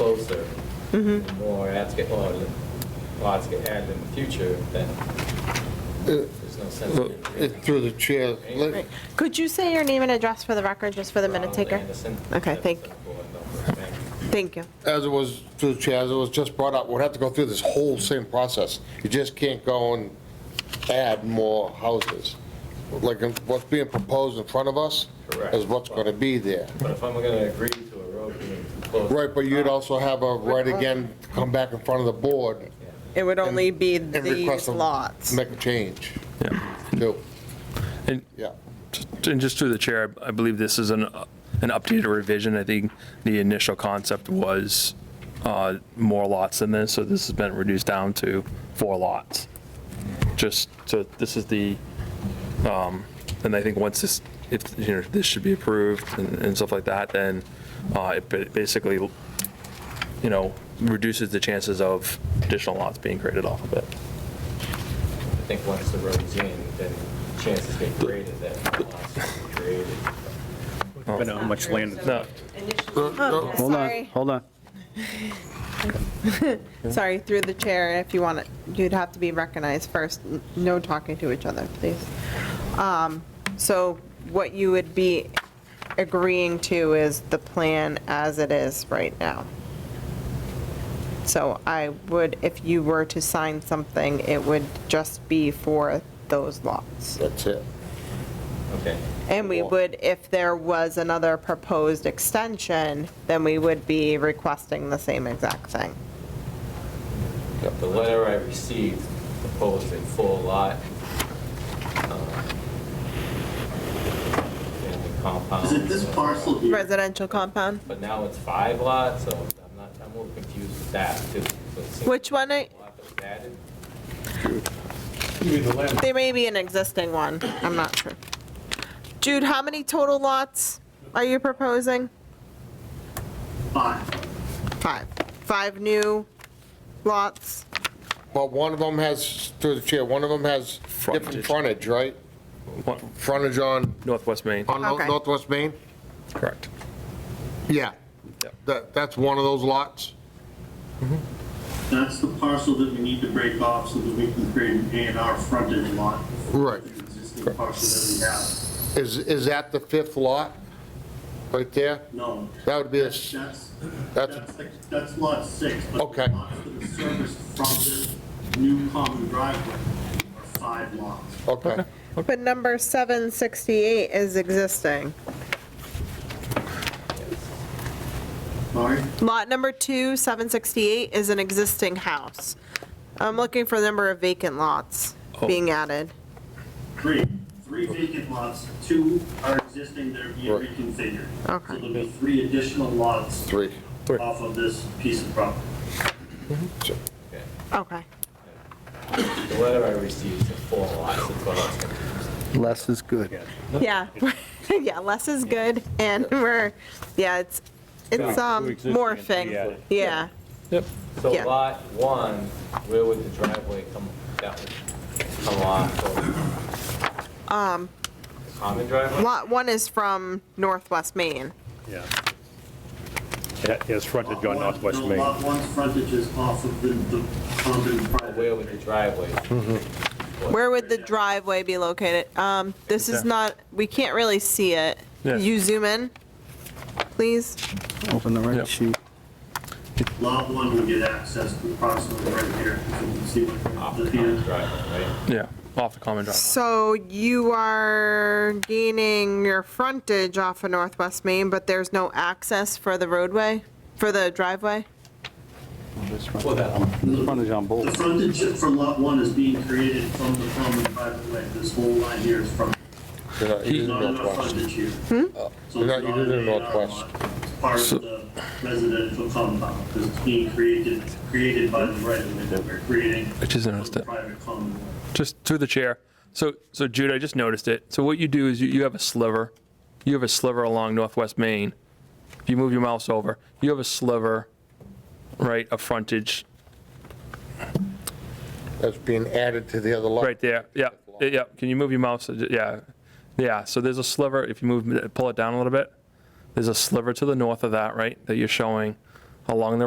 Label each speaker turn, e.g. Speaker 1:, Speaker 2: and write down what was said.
Speaker 1: closer, the
Speaker 2: Mm-hmm.
Speaker 1: more ads get, or lots get added in the future, then there's no sense
Speaker 3: Look,
Speaker 1: in.
Speaker 3: Uh, it- Through the chair, let-
Speaker 2: Right. Could you say your name and address for the record, just for the minute
Speaker 1: Ronald
Speaker 2: taker?
Speaker 1: Anderson,
Speaker 2: Okay, thank,
Speaker 1: Jefferson Board, Norfolk, thank you.
Speaker 2: thank you.
Speaker 3: as it was, through the chair, as it was just brought up, we'd have to go through this whole same process. You just can't go and add more houses. Like, what's being proposed in front of us
Speaker 1: Correct.
Speaker 3: is what's going to be there.
Speaker 1: But if I'm gonna agree to a road being too close.
Speaker 3: Right, but you'd also have a right again to come back in front of the board
Speaker 4: It would only be
Speaker 3: and request
Speaker 4: these
Speaker 3: to
Speaker 4: lots.
Speaker 3: make a change,
Speaker 5: Yeah,
Speaker 3: too.
Speaker 5: and,
Speaker 3: Yeah.
Speaker 5: and just through the chair, I I believe this is an, an updated revision. I think the initial concept was uh, more lots than this, so this has been reduced down to four lots. Just, so this is the, um, and I think once this, if, you know, this should be approved and and stuff like that, then uh, it ba- basically, you know, reduces the chances of additional lots being created off of it.
Speaker 1: I think once the road's in, then chances get greater that lots get created.
Speaker 3: Oh.
Speaker 6: Depending on how much land it's
Speaker 5: Um, No.
Speaker 2: Oh,
Speaker 3: Hold
Speaker 6: Hold on,
Speaker 2: Sorry,
Speaker 6: hold on.
Speaker 2: sorry, through the chair, if you want it, you'd have to be recognized first. N- No talking to each other, please. Um, So what you would be agreeing to is the plan as it is right now. So I would, if you were to sign something, it would just be for those lots.
Speaker 3: That's it.
Speaker 1: Okay,
Speaker 2: And we would, if there was another proposed extension, then we would be requesting the same exact thing.
Speaker 1: the letter I received proposed a full lot. um, And the compound.
Speaker 7: This parcel here,
Speaker 2: Residential compound?
Speaker 1: But now it's five lots, so I'm not, I'm a little confused with that too. So it seems
Speaker 2: Which one?
Speaker 1: a
Speaker 2: I-
Speaker 1: lot that was added.
Speaker 2: There may be an existing one, I'm not sure. Jude, how many total lots are you proposing?
Speaker 7: fine.
Speaker 2: Five. Five new lots?
Speaker 3: But one of them has, through the chair, one of them has different
Speaker 5: Frontage.
Speaker 3: frontage, right?
Speaker 5: What-
Speaker 3: Frontage on,
Speaker 5: Northwest Main,
Speaker 3: on Nor-
Speaker 2: Okay.
Speaker 3: Northwest Main?
Speaker 5: correct.
Speaker 3: Yeah.
Speaker 5: Yep.
Speaker 3: That, that's one of those lots?
Speaker 7: That's the parcel that we need to break off so that we can create an A and R frontage lot. for
Speaker 3: Right.
Speaker 7: the Existing parcel that we have.
Speaker 3: Is, is that the fifth lot? Right there?
Speaker 7: No,
Speaker 3: That would be, a s-
Speaker 7: that's,
Speaker 3: that's,
Speaker 7: that's, that's lot six. but the
Speaker 3: Okay.
Speaker 7: Lots that are serviced from the new common driveway are five lots.
Speaker 3: okay.
Speaker 2: But number 768 is existing.
Speaker 7: Sorry?
Speaker 2: Lot number two, 768, is an existing house. I'm looking for the number of vacant lots being added.
Speaker 7: Three, three vacant lots, two are existing that are being
Speaker 3: Right.
Speaker 7: reconfigured.
Speaker 2: Okay.
Speaker 7: So there'll be three additional lots
Speaker 3: Three.
Speaker 7: off of this piece of property.
Speaker 1: Okay.
Speaker 2: Okay.
Speaker 1: The letter I received is four lots, that's what I was confused.
Speaker 6: Less is good.
Speaker 2: Yeah, yeah, less is good, and we're, yeah, it's, it's um morphing, yeah.
Speaker 1: So
Speaker 2: Yeah.
Speaker 1: lot one, where would the driveway come, that would come off of?
Speaker 2: Um,
Speaker 1: The Common driveway?
Speaker 2: Lot one is from Northwest Maine.
Speaker 6: Yeah. It has frontage on
Speaker 7: Lot one-
Speaker 6: Northwest
Speaker 7: no,
Speaker 6: Main.
Speaker 7: Lot one's frontage is off of the, the common
Speaker 1: Where
Speaker 7: driveway.
Speaker 1: would the driveway?
Speaker 2: Where would the driveway be located? Um, this is not, we can't really see it.
Speaker 5: Yeah.
Speaker 2: Could You zoom in, please?
Speaker 6: Open the
Speaker 5: Yep.
Speaker 6: right sheet.
Speaker 7: Lot one would get access to approximately right here, so you can see what
Speaker 1: Off the
Speaker 7: the
Speaker 1: common
Speaker 7: hand.
Speaker 1: driveway, right?
Speaker 5: Yeah, off the common driveway.
Speaker 2: So you are gaining your frontage off of Northwest Maine, but there's no access for the roadway, for the driveway?
Speaker 6: There's
Speaker 1: Well, that-
Speaker 6: frontage on
Speaker 7: The
Speaker 6: both.
Speaker 7: frontage from lot one is being created from the common driveway, this whole line here is from,
Speaker 3: You're not using
Speaker 7: not enough
Speaker 3: Northwest.
Speaker 7: frontage here. So
Speaker 3: You're
Speaker 7: it's
Speaker 3: not
Speaker 7: not
Speaker 3: using
Speaker 7: an A and R
Speaker 3: northwest.
Speaker 7: lot, it's part of the residential compound, because it's being created, created by the right of way that we're creating.
Speaker 5: I just noticed
Speaker 7: from
Speaker 5: it.
Speaker 7: the Private common.
Speaker 5: Just through the chair. So, so Jude, I just noticed it. So what you do is you, you have a sliver, you have a sliver along Northwest Main. If you move your mouse over, you have a sliver, right, of frontage,
Speaker 3: That's being added to the other lot.
Speaker 5: right there. Yeah, yeah. Can you move your mouse? Yeah, yeah. So there's a sliver. If you move, pull it down a little bit. There's a sliver to the north of that, right, that you're showing along the